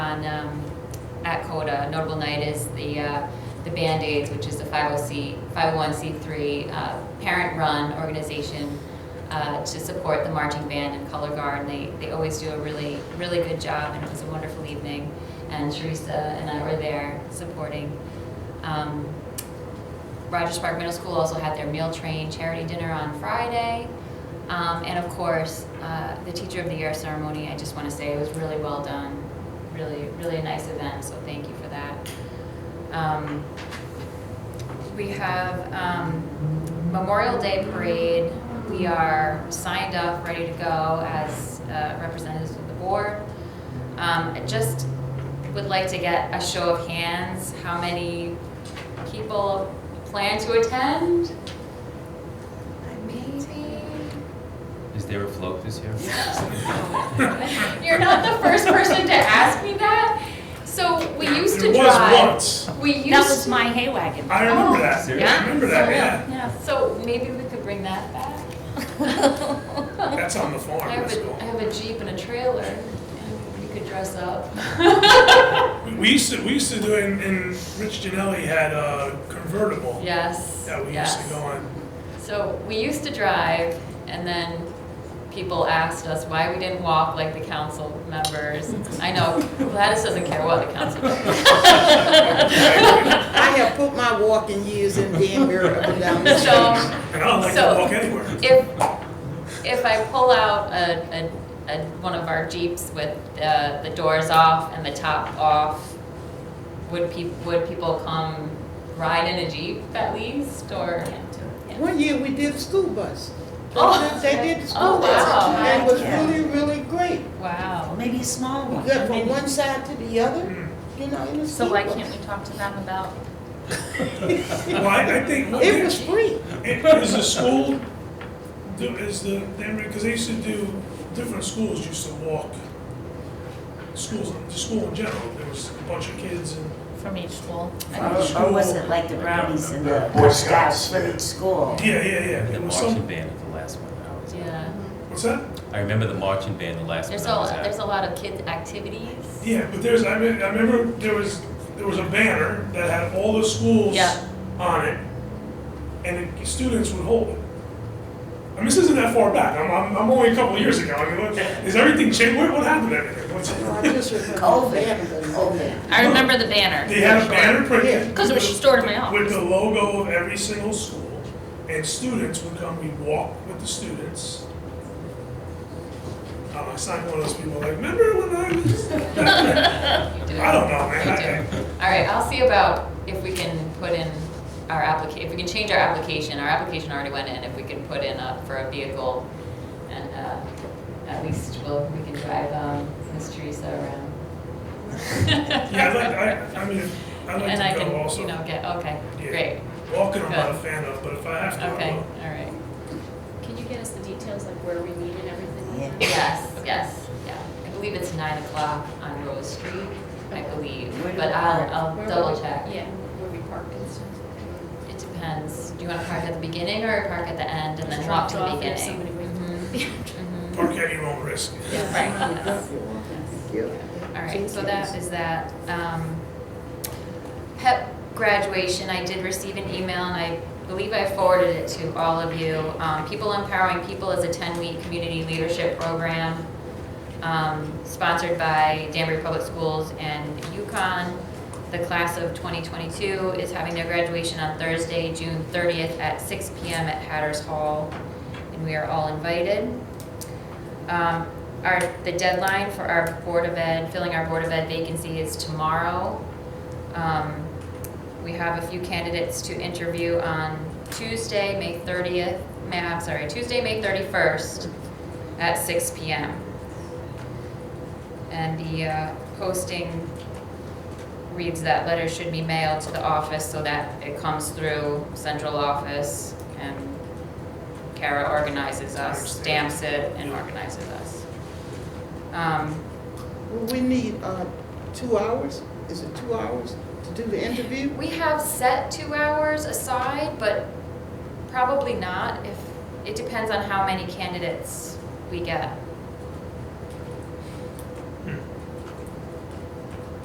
on, um, at CODA. A Notable night is the, uh, the Band-Aids, which is a 50C, 501c3 uh, parent-run organization uh, to support the marching band and color guard. And they, they always do a really, really good job, and it was a wonderful evening. And Teresa and I were there supporting. Um, Rogers Park Middle School also had their meal train charity dinner on Friday. Um, and of course, uh, the Teacher of the Year ceremony, I just want to say it was really well done. Really, really a nice event, so thank you for that. Um, we have um, Memorial Day Parade. We are signed up, ready to go as uh, representatives of the board. Um, I just would like to get a show of hands, how many people plan to attend? Maybe. Is there a float this year? You're not the first person to ask me that. So we used to It drive. was once. We used. That was my hay wagon. I remember that. Seriously? I remember that, yeah. Yeah. So maybe we could bring that back. That's on the farm, I that's have cool. a, I have a Jeep and a trailer, and we could dress up. We- We used to, we used to do, in in Rich Janelli had a convertible Yes, that we used to yes. go on. So we used to drive, and then people asked us why we didn't walk like the council members. I know Gladys doesn't care what the council members. I have put my walking years in Danbury up and down the street. So And I don't like Um, So- to walk anywhere. if, if I pull out a, a, a, one of our Jeeps with uh, the, the doors off and the top off, would peop, would people come ride in a Jeep at least, or? One year we did the school bus. Oh. They did- They did the Oh, school bus. wow. And it was Yeah. really, really great. Wow. Oh, Maybe a small You one. got from Maybe- one side to the other, Mm. you know, in the So school why bus. can't we talk to them about? Well, I I think, what It they- was free. it- is the school, do- is the, because they used to do, different schools used to walk. Schools, the school in general, there was a bunch of kids and From each school. I Or will- was it like the brownies and the Boy Boy Scouts, Scouts for each school? Yeah, yeah, yeah. The It was marching some, band at the last one I was at. Yeah, what's that? I remember the marching band the last there's one a, I was there's at. a lot of kids' activities. Yeah, but there's, I mean, I remember there was, there was a banner that had all the schools Yeah. on it, and the students would hold it. I mean, this isn't that far back, I'm, I'm, I'm only a couple years ago, I mean, what, is everything changed, what, what happened to everything? What's- Oh, I just remember Covid, Danbury. Covid. I remember the banner. They had a banner printed. Because it was with- stored in my office. With the logo of every single school, and students would come, we'd walk with the students. I'm not one of those people like, remember when I was? I You do. don't know, man, You I- do. All right, I'll see about if we can put in our applica, if we can change our application, our application already went in, if we can put in a, for a vehicle. And, uh, at least we'll, we can drive, um, Miss Teresa around. Yeah, I'd like, I, I mean, I'd And I like to go can, you also. know, get, okay, Yeah. great, Walking, I'm not a Good. fan of, but if I have to, I okay, will. all right. Can you get us the details like where we meet and everything? like that? Yes, yes, yeah. I believe it's nine o'clock on Rose Street, I believe, Where do but we park? I'll, Where I'll we- double check. Yeah, where we park and stuff. It depends. Do you want to park at the beginning or park at the end and then walk to the Dropped off if beginning? somebody waits. Mhm. Park at your own risk. Yeah, Right. Yeah. All right, so that is that. Um, PEP graduation, I did receive an email and I believe I forwarded it to all of you. Um, People Empowering People is a 10-week community leadership program um, sponsored by Danbury Public Schools and UConn. The class of 2022 is having their graduation on Thursday, June 30th at 6 PM at Hatters Hall, and we are all invited. Um, Our, the deadline for our Board of Ed, filling our Board of Ed vacancy is tomorrow. Um, We have a few candidates to interview on Tuesday, May 30th, May, I'm sorry, Tuesday, May 31st at 6 PM. And the uh, posting reads that letter should be mailed to the office so that it comes through central office and Kara organizes us, stamps it and organizes us. Um, Well, we need, uh, two hours, is it two hours to do the interview? We have set two hours aside, but probably not if, it depends on how many candidates we get.